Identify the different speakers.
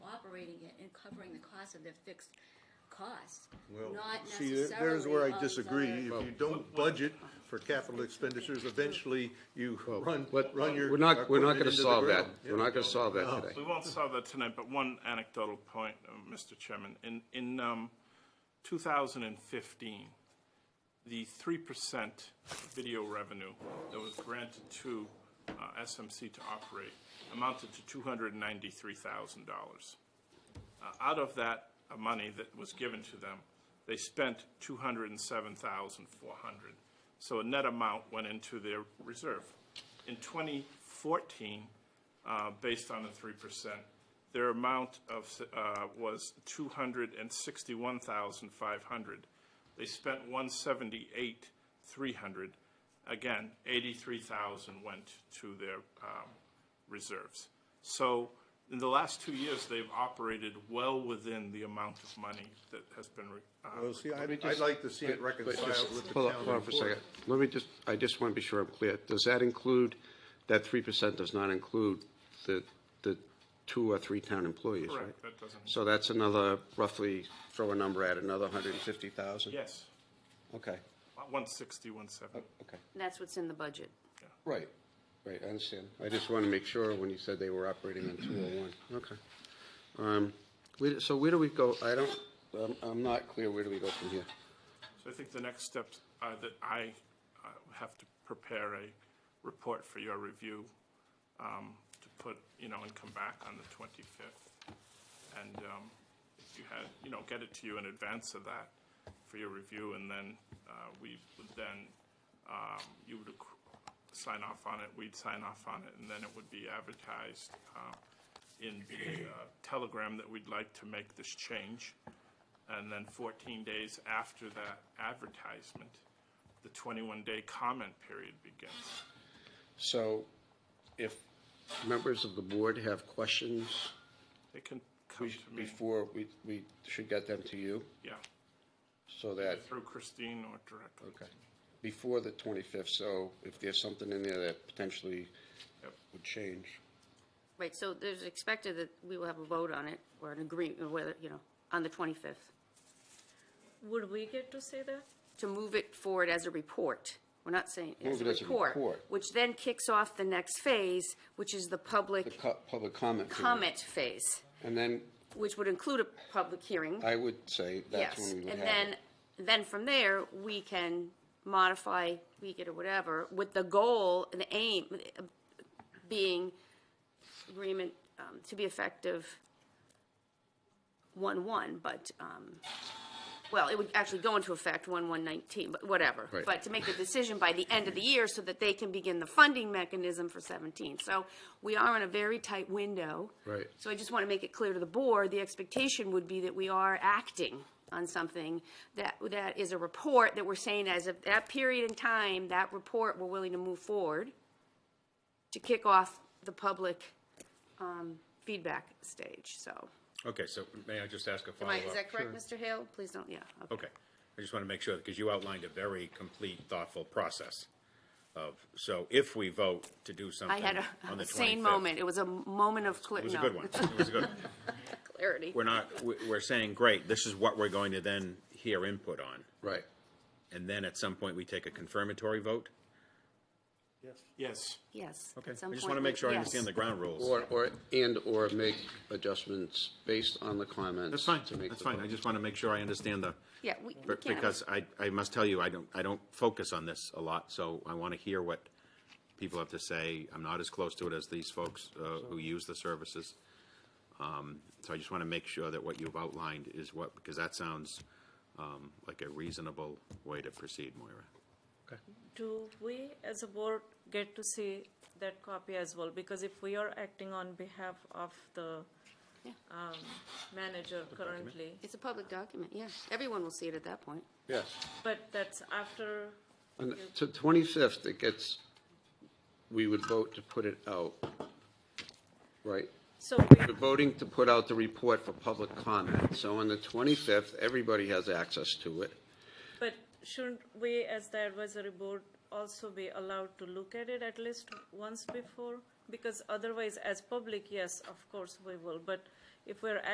Speaker 1: covering the cost of their fixed costs,
Speaker 2: Well,
Speaker 1: not
Speaker 2: see, there- there's where
Speaker 1: necessarily
Speaker 2: I
Speaker 1: of
Speaker 2: disagree.
Speaker 1: their-
Speaker 2: If you don't budget for capital expenditures, eventually you run,
Speaker 3: What-
Speaker 2: run your.
Speaker 3: We're not, we're not
Speaker 2: equipment
Speaker 3: gonna
Speaker 2: into the
Speaker 3: solve that.
Speaker 2: ground.
Speaker 3: We're not gonna solve that today.
Speaker 4: We won't solve that tonight, but one anecdotal point, uh, Mr. Chairman. In, in um, 2015, the 3% video revenue that was granted to uh, SMC to operate amounted to $293,000. Uh, Out of that uh, money that was given to them, they spent 207,400. So a net amount went into their reserve. In 2014, uh, based on the 3%, their amount of, uh, was 261,500. They spent 178,300. Again, 83,000 went to their um, reserves. So in the last two years, they've operated well within the amount of money that has been. re- uh,
Speaker 2: Well, see, I'd, I'd like to see it reconciled with the town.
Speaker 3: Hold on, hold on for a
Speaker 2: report.
Speaker 3: second. Let me just, I just want to be sure I'm clear. Does that include, that three percent does not include the, the two or three town employees, right?
Speaker 4: Correct, that doesn't-
Speaker 3: So that's another, roughly, throw a number at, another hundred and fifty thousand?
Speaker 4: Yes,
Speaker 3: Okay,
Speaker 4: 160, 170.
Speaker 3: okay.
Speaker 5: That's what's in the budget.
Speaker 3: Right, right, I understand. I just want to make sure when you said they were operating on 201. Okay. Um, we- So where do we go? I don't, I'm- I'm not clear, where do we go from here?
Speaker 4: So I think the next steps are that I uh, have to prepare a report for your review um, to put, you know, and come back on the 25th. And um, if you had, you know, get it to you in advance of that for your review, and then uh, we would then, um, you would acc- sign off on it, we'd sign off on it, and then it would be advertised uh, in the uh, telegram that we'd like to make this change. And then 14 days after that advertisement, the 21-day comment period begins.
Speaker 3: So if members of the board have questions
Speaker 4: They can come
Speaker 3: we-
Speaker 4: to me,
Speaker 3: before, we we should get them to you,
Speaker 4: yeah,
Speaker 3: so that,
Speaker 4: through Christine or directly.
Speaker 3: okay, before the 25th, so if there's something in there that potentially
Speaker 4: Yep.
Speaker 3: would change.
Speaker 5: Right, so there's expected that we will have a vote on it, or an agreement, whether, you know, on the 25th,
Speaker 6: Would we get to say that?
Speaker 5: to move it forward as a report. We're not saying, as
Speaker 3: Move
Speaker 5: a
Speaker 3: it as a
Speaker 5: report,
Speaker 3: report.
Speaker 5: which then kicks off the next phase, which is the
Speaker 3: The
Speaker 5: public
Speaker 3: co- public comment. period.
Speaker 5: comment phase,
Speaker 3: And then
Speaker 5: which would include a public hearing,
Speaker 3: I would say that's
Speaker 5: yes.
Speaker 3: when we would have
Speaker 5: And
Speaker 3: it.
Speaker 5: then, then from there, we can modify, tweak it or whatever, with the goal and the aim uh, being agreement um, to be effective one-one, but, um, well, it would actually go into effect one-one nineteen, but whatever.
Speaker 3: Right.
Speaker 5: But to make the decision by the end of the year so that they can begin the funding mechanism for seventeen. So we are in a very tight window.
Speaker 3: Right.
Speaker 5: So I just want to make it clear to the board, the expectation would be that we are acting on something that, that is a report that we're saying as of that period in time, that report, we're willing to move forward to kick off the public um, feedback stage, so.
Speaker 7: Okay, so may I just ask a
Speaker 5: Am
Speaker 7: follow-up?
Speaker 5: I, is that correct, Mr. Hale? Please don't, yeah. okay.
Speaker 7: Okay, I just want to make sure, because you outlined a very complete, thoughtful process of, so if we vote to do
Speaker 5: I
Speaker 7: something
Speaker 5: had a
Speaker 7: on the 25th.
Speaker 5: sane moment. It was a moment of clear,
Speaker 7: It was a
Speaker 5: no,
Speaker 7: good one, it was a good one.
Speaker 5: clarity.
Speaker 7: We're not, we- we're saying, great, this is what we're going to then hear input on,
Speaker 3: Right.
Speaker 7: and then at some point, we take a confirmatory vote?
Speaker 4: Yes,
Speaker 5: Yes.
Speaker 7: Okay,
Speaker 5: at some
Speaker 7: I just want to
Speaker 5: point,
Speaker 7: make sure I
Speaker 5: yes.
Speaker 7: understand the ground rules.
Speaker 3: Or, or, and/or make adjustments based on the comments.
Speaker 7: That's fine,
Speaker 3: to make
Speaker 7: that's
Speaker 3: the
Speaker 7: fine,
Speaker 3: vote.
Speaker 7: I just want to make sure I understand the.
Speaker 5: Yeah, we- we
Speaker 7: Be-
Speaker 5: can.
Speaker 7: Because I, I must tell you, I don't, I don't focus on this a lot, so I want to hear what people have to say. I'm not as close to it as these folks uh, who use the services. Um, So I just want to make sure that what you've outlined is what, because that sounds um, like a reasonable way to proceed, Moira.
Speaker 6: Do we, as a board, get to see that copy as well? Because if we are acting on behalf of the
Speaker 5: Yeah.
Speaker 6: um, manager currently,
Speaker 5: It's a public document, yeah. Everyone will see it at that point.
Speaker 3: Yes.
Speaker 6: but that's after,
Speaker 3: And to 25th, it gets, we would vote to put it out, right?
Speaker 6: so
Speaker 3: We're voting to put out the report for public comment. So on the 25th, everybody has access to it.
Speaker 6: But shouldn't we, as the advisory board, also be allowed to look at it at least once before? Because otherwise, as public, yes, of course we will, but if we're